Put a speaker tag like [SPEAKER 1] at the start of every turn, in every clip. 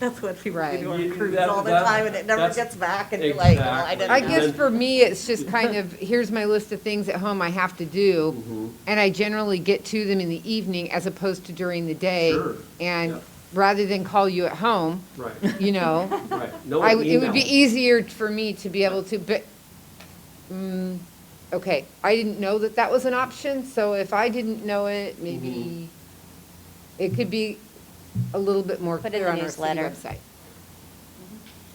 [SPEAKER 1] That's what people
[SPEAKER 2] Right.
[SPEAKER 1] do on
[SPEAKER 3] You-
[SPEAKER 1] cruises
[SPEAKER 3] that-
[SPEAKER 1] all the
[SPEAKER 3] that-
[SPEAKER 1] time, and it never
[SPEAKER 3] that's-
[SPEAKER 1] gets back, and you're like, oh, I
[SPEAKER 3] Exactly.
[SPEAKER 1] didn't.
[SPEAKER 2] I
[SPEAKER 1] know."
[SPEAKER 2] guess for me, it's just kind of, here's my list of things at home I have to
[SPEAKER 4] Mm-hmm.
[SPEAKER 2] do. And I generally get to them in the evening as opposed to during the day.
[SPEAKER 4] Sure. Yeah.
[SPEAKER 2] And rather than call you at home,
[SPEAKER 4] Right,
[SPEAKER 2] you know,
[SPEAKER 4] right. No
[SPEAKER 2] I, it
[SPEAKER 4] email.
[SPEAKER 2] would be e- easier for me to be able to, but, mm, okay, I didn't know that that was an option, so if I didn't know it, maybe
[SPEAKER 4] Mm-hmm.
[SPEAKER 2] it could be a little bit more
[SPEAKER 5] Put in
[SPEAKER 2] clear
[SPEAKER 5] the
[SPEAKER 2] on our city
[SPEAKER 5] newsletter.
[SPEAKER 2] website.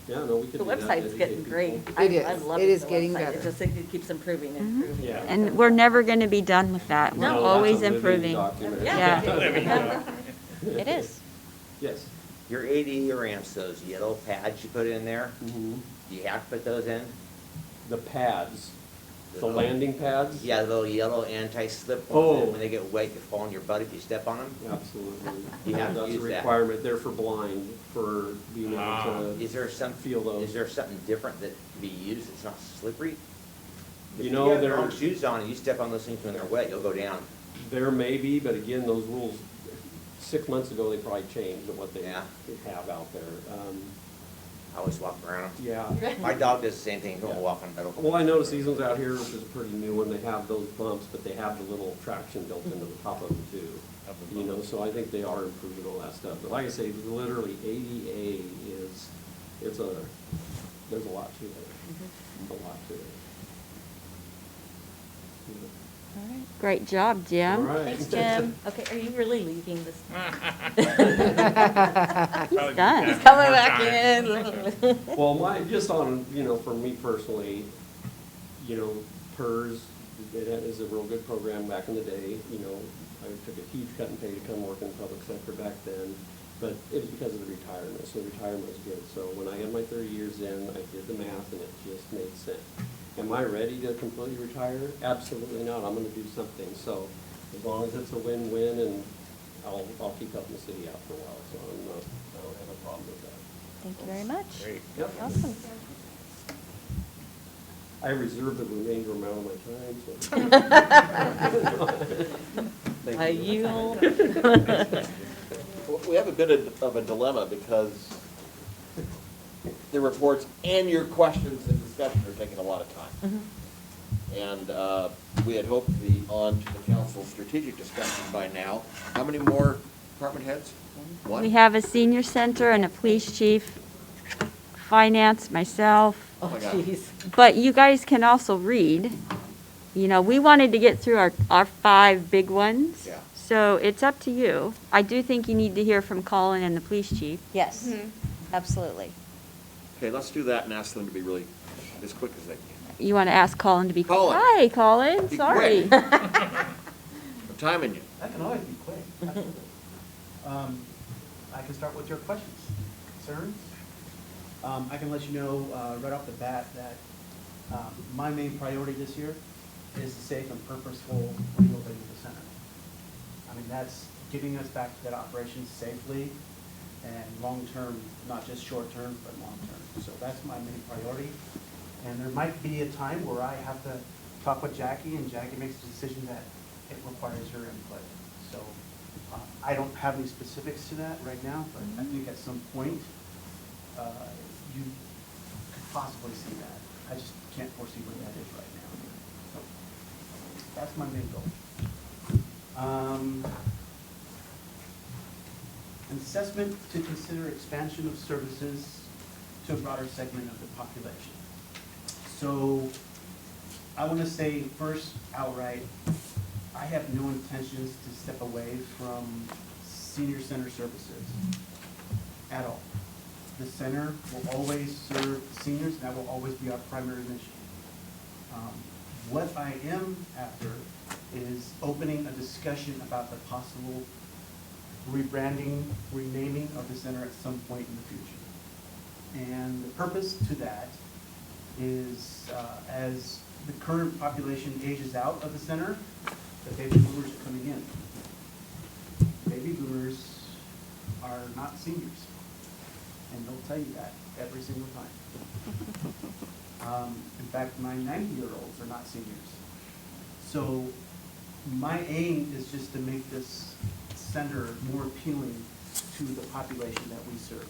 [SPEAKER 4] Yeah, no, we could
[SPEAKER 1] The
[SPEAKER 4] do that,
[SPEAKER 1] website's
[SPEAKER 4] educate
[SPEAKER 1] getting
[SPEAKER 4] people.
[SPEAKER 1] great.
[SPEAKER 2] It
[SPEAKER 1] I-
[SPEAKER 2] is.
[SPEAKER 1] I love
[SPEAKER 2] It is
[SPEAKER 1] the
[SPEAKER 2] getting
[SPEAKER 1] website.
[SPEAKER 2] better. Mm-hmm.
[SPEAKER 1] It just, it keeps improving and improving.
[SPEAKER 3] Yeah.
[SPEAKER 5] And we're never going to be done with that. Uh, We're
[SPEAKER 1] No.
[SPEAKER 4] No, that's a
[SPEAKER 5] always
[SPEAKER 4] living
[SPEAKER 5] improving.
[SPEAKER 4] document.
[SPEAKER 5] Yeah. It is.
[SPEAKER 4] Yes.
[SPEAKER 6] Your ADU ramps, those yellow pads you put in there,
[SPEAKER 4] Mhm.
[SPEAKER 6] do you have to put those in?
[SPEAKER 4] The pads, the
[SPEAKER 6] Little-
[SPEAKER 4] landing pads?
[SPEAKER 6] Yeah, the little yellow anti-slip
[SPEAKER 4] Oh.
[SPEAKER 6] ones, and when they get wet, you fall on your butt if you step on them?
[SPEAKER 4] Absolutely.
[SPEAKER 6] You have to
[SPEAKER 4] That's a
[SPEAKER 6] use that.
[SPEAKER 4] requirement there for blind, for being
[SPEAKER 5] Ah.
[SPEAKER 4] able to,
[SPEAKER 6] Is there some,
[SPEAKER 4] Ah. Feel those.
[SPEAKER 6] is there something different that can be used that's not slippery? If
[SPEAKER 4] You know,
[SPEAKER 6] have
[SPEAKER 4] there-
[SPEAKER 6] your own shoes on and you step on those things when they're wet, you'll go down.
[SPEAKER 4] there may be, but again, those rules, six months ago, they probably changed what they
[SPEAKER 6] Yeah.
[SPEAKER 4] have out there. Um,
[SPEAKER 6] I always walk around them.
[SPEAKER 4] Yeah,
[SPEAKER 6] My dog does the same thing, he'll walk on metal.
[SPEAKER 4] Well, I noticed these ones out here, which is a pretty new one, they have those bumps, but they have the little traction built into the top of them too. You know, so I think they are improving all that stuff. But like I say, literally ADA is, it's a, there's a lot to it. A lot to it.
[SPEAKER 5] Great job,
[SPEAKER 4] All
[SPEAKER 5] Jim.
[SPEAKER 4] right.
[SPEAKER 1] Thanks, Jim. Okay, are you really leaving this?
[SPEAKER 5] He's done.
[SPEAKER 1] Coming back in.
[SPEAKER 4] Well, my, just on, you know, for me personally, you know, PERS, it is a real good program back in the day, you know, I took a huge cut in pay to come work in the public sector back then, but it was because of the retirement, so retirement was good, so when I had my thirty years in, I did the math and it just made sense. Am I ready to completely retire? Absolutely not, I'm gonna do something, so as long as it's a win-win and I'll, I'll keep helping the city out for a while, so I'm not, I don't have a problem with that.
[SPEAKER 5] Thank you very much.
[SPEAKER 4] Yep.
[SPEAKER 5] Awesome.
[SPEAKER 4] I reserve the remainder amount of my time, so.
[SPEAKER 1] I yield.
[SPEAKER 7] W- We have a bit of- of a dilemma because the reports and your questions and discussion are taking a lot of time.
[SPEAKER 5] Mm-hmm.
[SPEAKER 7] And uh, we had hoped to be on to the council strategic discussion by now. How many more department heads? One?
[SPEAKER 5] We have a senior center and a police chief, finance, myself.
[SPEAKER 1] Oh,
[SPEAKER 7] my God.
[SPEAKER 1] jeez.
[SPEAKER 5] But you guys can also read. You know, we wanted to get through our, our five big ones.
[SPEAKER 7] Yeah.
[SPEAKER 5] So it's up to you. I do think you need to hear from Colin and the police chief.
[SPEAKER 8] Yes,
[SPEAKER 5] Mm-hmm.
[SPEAKER 8] absolutely.
[SPEAKER 7] Okay, let's do that and ask them to be really as quick as they can.
[SPEAKER 5] You want to ask Colin to be.
[SPEAKER 7] Colin.
[SPEAKER 5] Hi, Colin,
[SPEAKER 7] Be
[SPEAKER 5] sorry.
[SPEAKER 7] quick. I'm timing you.
[SPEAKER 9] That can always be quick. absolutely. Um, I can start with your questions, concerns. Um, I can let you know uh, right off the bat that um, my main priority this year is the safe and purposeful reopening of the center. I mean, that's getting us back to that operation safely and long-term, not just short-term, but long-term. So that's my main priority. And there might be a time where I have to talk with Jackie, and Jackie makes a decision that it requires your input. So uh, I don't have any specifics to that right now, but I think at some point, uh, you could possibly see that. I just can't foresee what that is right now. So That's my main goal. Um, An assessment to consider expansion of services to a broader segment of the population. So I want to say first outright, I have no intentions to step away from senior center services at all. The center will always serve seniors, and that will always be our primary mission. Um, What I am after is opening a discussion about the possible rebranding, renaming of the center at some point in the future. And the purpose to that is, uh, as the current population ages out of the center, the baby boomers are coming in. Baby boomers are not seniors, and they'll tell you that every single time. Um, in fact, my ninety-year-olds are not seniors. So my aim is just to make this center more appealing to the population that we serve.